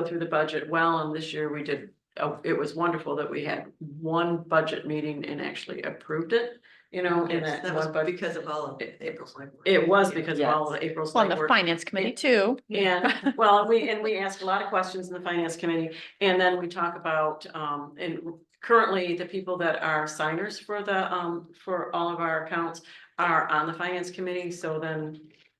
go through the budget well, and this year we did, oh, it was wonderful that we had one budget meeting and actually approved it, you know, in Yes, that That was one budget. because of all of it- April's work. It was because of all of April's. Well, and late the work. finance committee too. And, well, we, and we asked a lot of questions in the finance committee, and then we talk about, um, and currently, the people that are signers for the, um, for all of our accounts are on the finance committee, so then,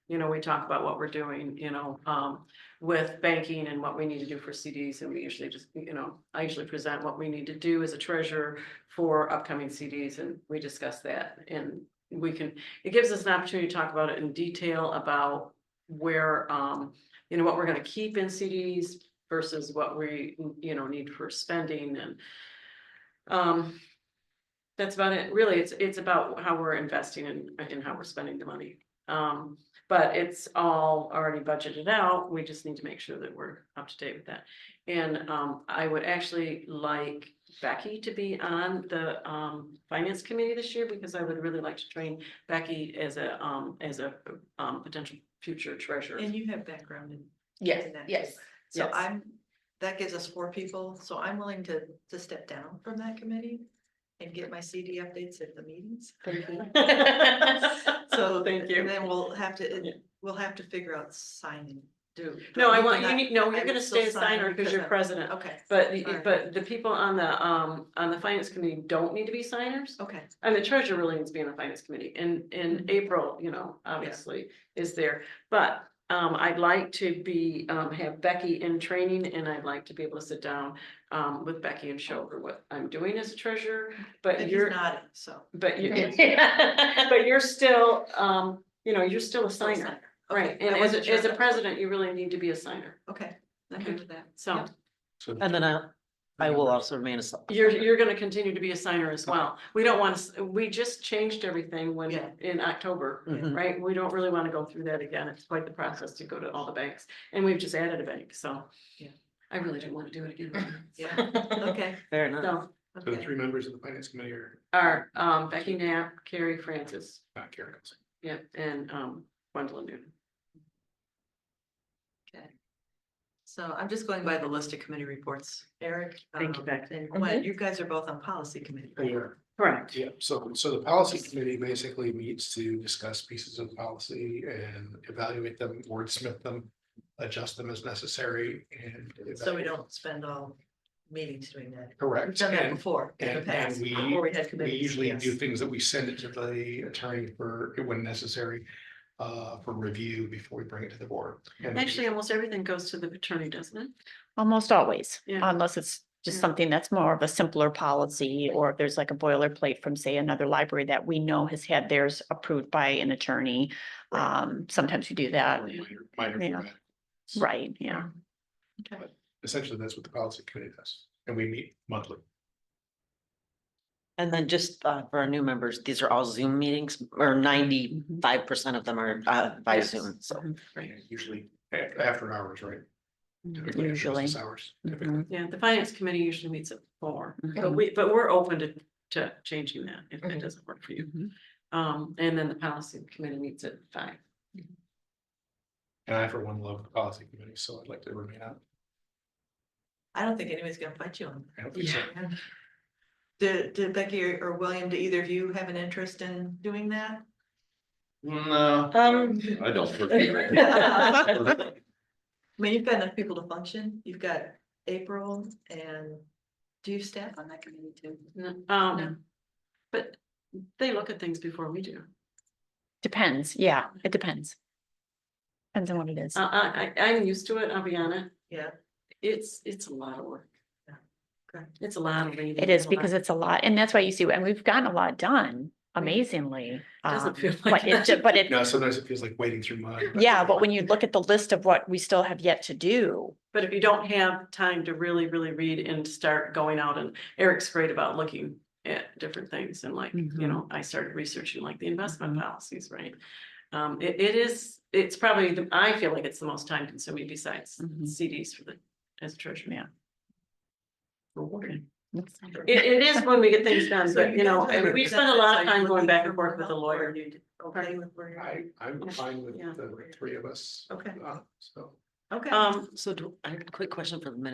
you know, we talk about what we're doing, you know, um, with banking and what we need to do for CDs, and we usually just, you know, I usually present what we need to do as a treasurer for upcoming CDs, and we discuss that, and we can, it gives us an opportunity to talk about it in detail about where, um, you know, what we're gonna keep in CDs versus what we, you know, need for spending and. Um, that's about it. Really, it's, it's about how we're investing and, and how we're spending the money. Um, but it's all already budgeted out. We just need to make sure that we're up to date with that. And, um, I would actually like Becky to be on the, um, finance committee this year because I would really like to train Becky as a, um, as a, um, potential future treasurer. And you have background in. in that too. So Yes. I'm, that gives us four people, so I'm willing to, to step down from that committee and get my CD updates at the meetings. So, So Oh, thank And you. then we'll have to, Yeah. we'll have to figure out signing, do. No, I we want, you cannot- need, no, I you're would gonna still stay a sign signer because you're I'm- president, Okay, but, the- all right. but the people on the, um, on the finance committee don't need to be signers. okay, And the treasurer really needs to be on the finance committee, and, in Mhm. April, you know, obviously is there, but. Um, I'd like to be, um, have Becky in training, and I'd like to be able to sit down, um, with Becky and show her what I'm doing as a treasurer, but and he's you're. nodding, so. But you, but you're still, um, you know, you're still a signer, right, Okay, and I as, wasn't a- sure as a if that's- president, you really need to be a signer, Okay, I'm Okay. good with that. so. So And then I, I will members- also remain a. sub- You're, you're gonna continue to be a signer as well, we don't want to, we just changed everything when, Yeah. in October, Mhm. right? We don't really wanna go through that again, it's quite the process to go to all the banks, and we've just added a bank, so. Yeah. I really don't wanna do it again, Yeah, okay, Fair enough. so, So the okay, three members of the finance committee are our, um, Becky Knapp, Carrie Francis, not Karen. Olsen. yeah, and, um, Gwendolyn Newton. so I'm just going by the list of committee reports, Eric. Thank you, um, Becky. And Gwen, you guys are both on policy committee. right? We are, Correct. yeah, so, so the policy committee basically meets to discuss pieces of policy and evaluate them, wordsmith them. Adjust them as necessary and. So we evaluate. don't spend all meetings doing that. We've Correct, done that and before in the and- and past, we- before we had we committees. usually yes. do things that we send it to the attorney for, when necessary. Uh, for review before we bring it to the board. And- Actually, almost everything goes to the attorney, doesn't it? Almost always, Yeah. unless it's just Yeah. something that's more of a simpler policy, or if there's like a boilerplate from, say, another library that we know has had theirs approved by an attorney. Um, sometimes we do that, Minor- minor Yeah. format. right, yeah. Essentially, that's what the policy committee does, and we meet monthly. And then just uh, for our new members, these are all Zoom meetings or ninety-five percent of them are uh, by Yes. Zoom, so. Right. Usually a- after hours, right? Typically after Mm, Usually. business Hours. typically. Mhm, Yeah, the finance committee usually meets at four, but Mhm. we, but we're open to, to changing that if it Mhm. doesn't work for you. mhm. Um, and then the policy committee meets at five. And I, for one, love the policy committee, so I'd like to remain on. I don't think anybody's gonna fight you on I don't think so. that. yeah. Did, did Becky or, or William, do either of you have an interest in doing that? No, Um, I I don't. mean, you've got enough people to function, you've got April and do you staff on that committee too? No. Um, but they look at things before we do. Depends, yeah, it depends. Depends on what it is. Um, I, I, I- I'm used to it, I'll be honest. Yeah. It's, it's a lot of work. Yeah. Okay. It's a lot of reading. It is because it's a lot, and that's why you see, and we've gotten a lot done amazingly. um, Doesn't feel like But it, ju- that. but it, No, sometimes it feels like waiting through mud. yeah, but when you look at the list of what we still have yet to do, But if you don't have time to really, really read and start going out and Eric's great about looking at different things and like, you Mhm. know, I started researching like the investment policies, right? Um, it, it is, it's probably, the- I feel like it's the most time consuming besides Mhm. CDs for the, as treasurer. Yeah. Rewarding. it's- It, it is when we get things done, So but you know, guys are- we spend a lot of So you're time going looking back for and forth with the help, or lawyer. you Okay with where you're at? I, I'm fine with Yeah. the three of us. Okay. uh, So Okay. Um, So do, I have a quick question for the minute.